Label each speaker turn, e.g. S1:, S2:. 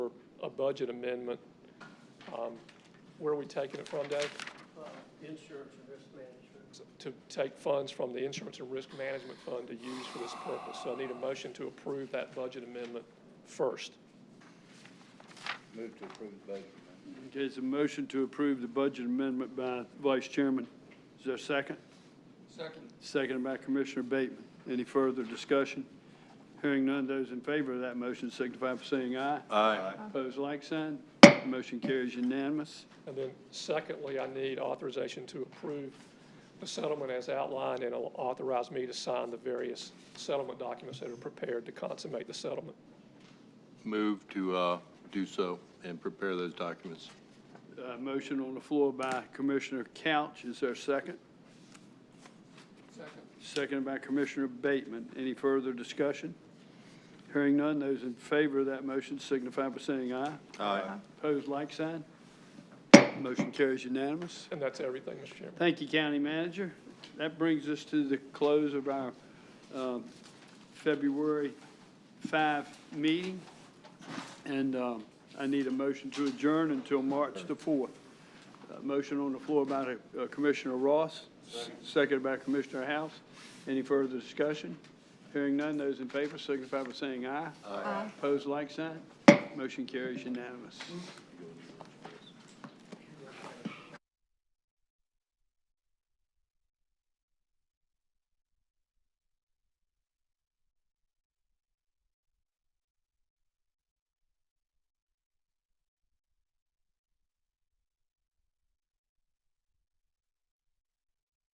S1: budget amendment. Um, Where are we taking it from, Dave?
S2: uh, insurance and risk management.
S1: To take funds from the Insurance and Risk Management Fund to use for this purpose. So I need a motion to approve that budget amendment first.
S3: Move to approve the budget amendment.
S4: Okay, it's a motion to approve the budget amendment by Vice Chairman. Is there a second?
S2: Second.
S4: Seconded by Commissioner Bateman. Any further discussion? Hearing none, those in favor of that motion signify by saying aye.
S3: Aye.
S4: Opposed, like sign. Motion carries unanimous.
S1: And then secondly, I need authorization to approve the settlement as outlined and it'll authorize me to sign the various settlement documents that are prepared to consummate the settlement.
S5: Move to uh, do so and prepare those documents.
S4: Uh, motion on the floor by Commissioner Couch. Is there a second?
S2: Second.
S4: Seconded by Commissioner Bateman. Any further discussion? Hearing none, those in favor of that motion signify by saying aye.
S3: Aye.
S4: Opposed, like sign. Motion carries unanimous.
S1: And that's everything, Mr. Chairman.
S4: Thank you, County Manager. That brings us to the close of our um, February 5 meeting, and um, I need a motion to adjourn until March the 4th. Uh, Motion on the floor by uh, Commissioner Ross, seconded by Commissioner House. Any further discussion? Hearing none, those in favor signify by saying aye. Aye. Opposed, like sign. Motion carries unanimous.